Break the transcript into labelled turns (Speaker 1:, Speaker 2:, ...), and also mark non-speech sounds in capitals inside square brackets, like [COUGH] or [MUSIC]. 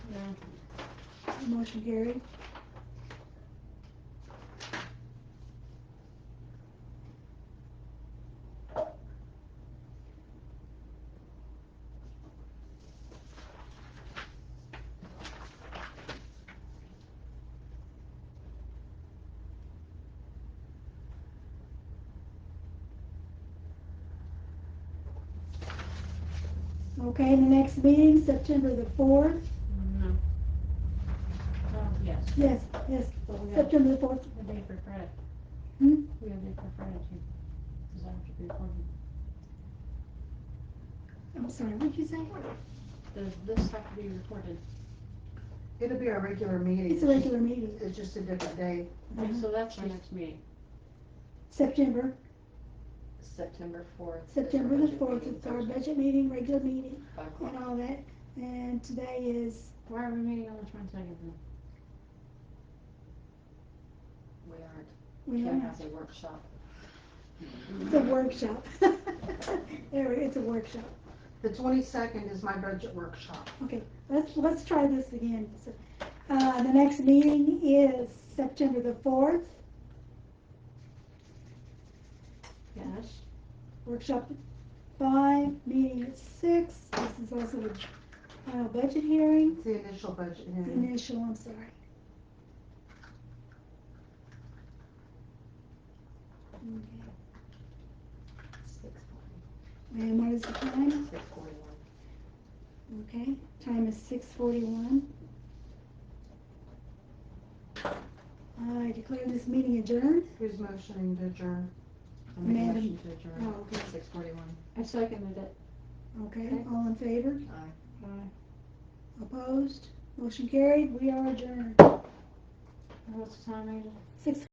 Speaker 1: Motion carried. Okay, the next meeting, September the fourth,
Speaker 2: No. No, yes,
Speaker 1: yes, yes,
Speaker 2: but we have
Speaker 1: September the fourth,
Speaker 2: a day for Fred.
Speaker 1: Hmm?
Speaker 2: We have a day for Fred too, because I have to be recording.
Speaker 1: I'm sorry, what'd you say?
Speaker 2: Does this have to be recorded?
Speaker 3: It'll be our regular meeting.
Speaker 1: It's a regular meeting,
Speaker 3: It's just a different day.
Speaker 2: Okay,
Speaker 1: Mhm.
Speaker 2: so that's our next meeting.
Speaker 1: September,
Speaker 4: September fourth.
Speaker 1: September the fourth, it's our budget meeting, regular meeting,
Speaker 4: Five o'clock.
Speaker 1: and all that, and today is,
Speaker 2: Why are we meeting on the twenty-second then?
Speaker 4: We aren't,
Speaker 1: we
Speaker 4: Ken
Speaker 1: don't know,
Speaker 4: has a workshop.
Speaker 1: it's a workshop. [LAUGHS] There, we- it's a workshop,
Speaker 3: The twenty-second is my budget workshop.
Speaker 1: let's, let's try this again. So, Uh, the next meeting is September the fourth,
Speaker 2: Yes.
Speaker 1: workshop at five, meeting at six, this is also a, uh, budget hearing.
Speaker 3: It's the initial budget hearing.
Speaker 1: Initial, I'm sorry. Okay.
Speaker 4: Six
Speaker 1: And what is the time?
Speaker 4: Six forty-one.
Speaker 1: Okay, time is six forty-one. I declare this meeting adjourned.
Speaker 3: Who's motioning to adjourn?
Speaker 4: I make a
Speaker 1: Madam-
Speaker 4: motion to
Speaker 1: Oh,
Speaker 4: adjourn.
Speaker 1: okay,
Speaker 4: Six forty-one.
Speaker 2: I seconded it.
Speaker 1: okay, all in favor?
Speaker 4: Aye.
Speaker 2: Aye.
Speaker 1: Opposed? Motion carried, we are adjourned.
Speaker 2: And What's the time, Ada?
Speaker 1: Six